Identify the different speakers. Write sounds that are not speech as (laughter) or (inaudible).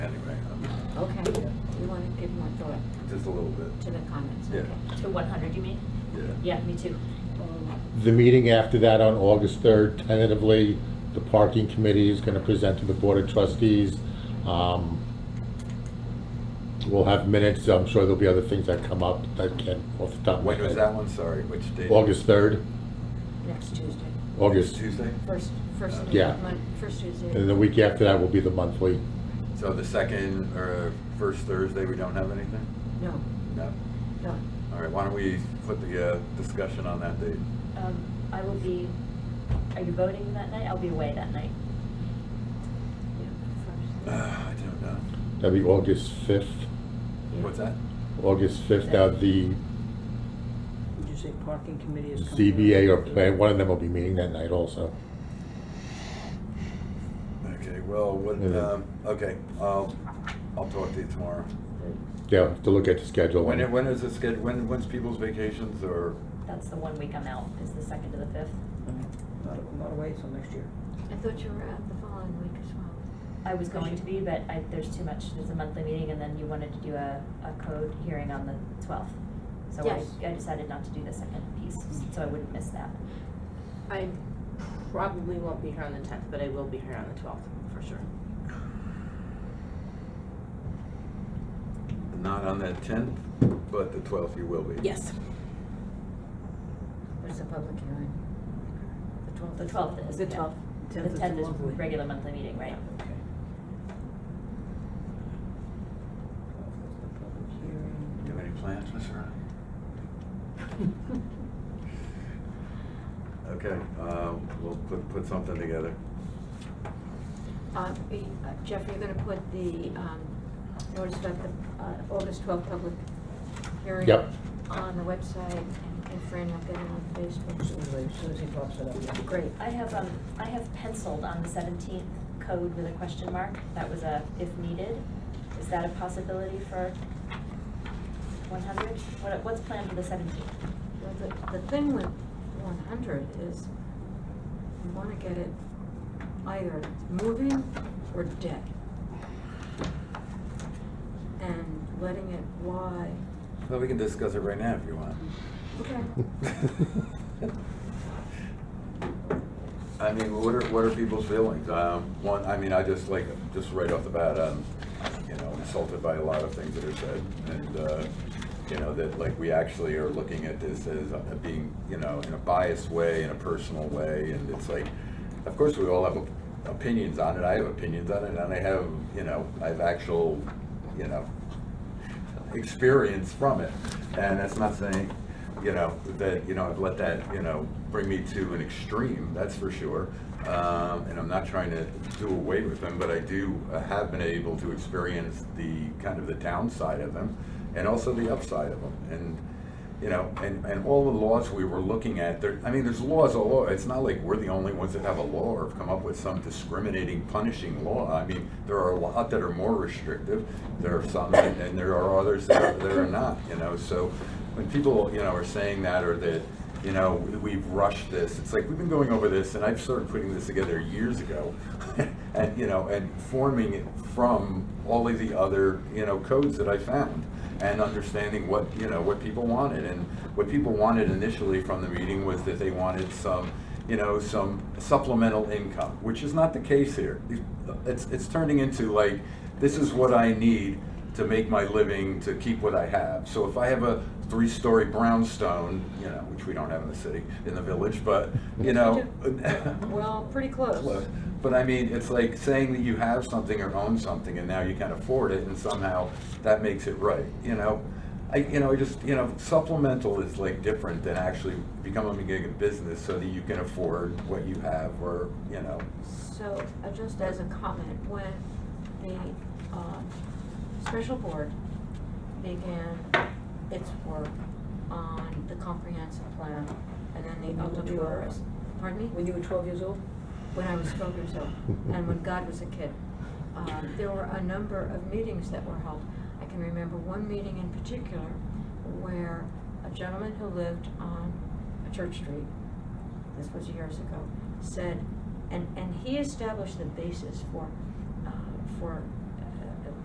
Speaker 1: or
Speaker 2: just a little bit,
Speaker 1: to the comments?
Speaker 2: Yeah.
Speaker 1: okay. To one hundred, you mean?
Speaker 2: yeah.
Speaker 1: Yeah, me too. Um,
Speaker 3: The meeting after that on August 3rd, tentatively, the parking committee is going to present to the Board of Trustees. Um, We'll have minutes, I'm sure there'll be other things that come up that can, off the top of my
Speaker 2: When was
Speaker 3: head.
Speaker 2: that one, sorry, which date?
Speaker 3: August 3rd,
Speaker 1: Next Tuesday,
Speaker 3: August,
Speaker 2: Tuesday?
Speaker 1: first, first
Speaker 2: Uh,
Speaker 3: Yeah.
Speaker 1: month, first Tuesday.
Speaker 3: and the week after that will be the monthly.
Speaker 2: So the second or first Thursday, we don't have anything?
Speaker 1: No,
Speaker 2: No?
Speaker 1: no.
Speaker 2: All right, why don't we put the uh, discussion on that date?
Speaker 4: Um, I will be, are you voting that night? I'll be away that night.
Speaker 2: Uh, I don't know.
Speaker 3: That'll be August 5th,
Speaker 2: What's that?
Speaker 3: August 5th, now the
Speaker 5: Would you say parking committee is coming?
Speaker 3: ZBA or plan, one of them will be meeting that night also.
Speaker 2: Okay, well, what,
Speaker 3: Yeah.
Speaker 2: um, okay, I'll, I'll talk to you tomorrow.
Speaker 3: Yeah, have to look at the schedule.
Speaker 2: When, when is it scheduled, when, when's people's vacations or?
Speaker 4: That's the one week I'm out, is the second to the fifth.
Speaker 5: Not, not away till next year.
Speaker 1: I thought you were out the following week as well.
Speaker 4: I was going to be, but I, there's too much, there's a monthly meeting, and then you wanted to do a, a code hearing on the twelfth. So I,
Speaker 1: Yes.
Speaker 4: I decided not to do the second piece, so I wouldn't miss that.
Speaker 6: I probably won't be here on the tenth, but I will be here on the twelfth, for sure.
Speaker 2: Not on the tenth, but the twelfth you will be.
Speaker 6: Yes.
Speaker 1: Where's the public hearing? The twelfth.
Speaker 4: The twelfth is,
Speaker 6: The
Speaker 4: yeah.
Speaker 6: 12th.
Speaker 4: The
Speaker 5: 10th is
Speaker 4: tenth
Speaker 5: the
Speaker 4: is
Speaker 5: monthly.
Speaker 4: regular monthly meeting, right?
Speaker 5: Okay.
Speaker 2: Do you have any plans, Mr. Ryan? Okay, um, we'll put, put something together.
Speaker 1: (laughs) Uh, we- uh, Jeff, you're gonna put the, um, notice about the, uh, August twelfth public hearing
Speaker 3: Yep.
Speaker 1: on the website, and- and Fran, I'll get it on Facebook.
Speaker 5: Anyway, (laughs) as soon as he pops it up.
Speaker 1: Great.
Speaker 4: I have, um, I have penciled on the seventeenth code with a question mark, that was a if needed. Is that a possibility for one hundred? What, what's planned for the seventeenth?
Speaker 1: Well, the, the thing with one hundred is, you wanna get it either moving or dead. And letting it lie,
Speaker 2: Well, we can discuss it right now if you want.
Speaker 1: okay,
Speaker 2: I mean, what are, what are people's feelings? Um, one, I mean, I just like, just right off the bat, um, you know, insulted by a lot of things that are said. And, uh, you know, that like we actually are looking at this as uh, being, you know, in a biased way, in a personal way. And it's like, of course, we all have opinions on it. I have opinions on it and I have, you know, I have actual, you know, experience from it. And that's not saying, you know, that, you know, I've let that, you know, bring me to an extreme, that's for sure. Um, and I'm not trying to do away with them, but I do uh, have been able to experience the, kind of the downside of them and also the upside of them. And, you know, and, and all the laws we were looking at, there, I mean, there's laws all over. It's not like we're the only ones that have a law or have come up with some discriminating, punishing law. I mean, there are a lot that are more restrictive. There are some, that- and there are others that are, that are not, you know. So when people, you know, are saying that or that, you know, we've rushed this, it's like, we've been going over this and I've started putting this together years ago. (laughs) and, you know, and forming it from all of the other, you know, codes that I found and understanding what, you know, what people wanted. And what people wanted initially from the meeting was that they wanted some, you know, some supplemental income, which is not the case here. It's, it's turning into like, this is what I need to make my living, to keep what I have. So if I have a three-story brownstone, you know, which we don't have in the city, in the village, but, you know. (laughs)
Speaker 1: well, pretty
Speaker 2: Look, But I mean, it's like saying that you have something or own something and now you can afford it and somehow that makes it right, you know? I, you know, I just, you know, supplemental is like different than actually becoming a business so that you can afford what you have or, you know,
Speaker 1: So, uh, just as a comment, when the, um, special board began its work on the comprehensive plan, and then the
Speaker 5: When you
Speaker 1: other
Speaker 5: were twelve.
Speaker 1: doors, pardon me?
Speaker 5: When you were twelve years old?
Speaker 1: when I was twelve years old, and when God was a kid. Uh, there were a number of meetings that were held. I can remember one meeting in particular where a gentleman who lived on a church street, this was years ago, said, and, and he established the basis for, uh, for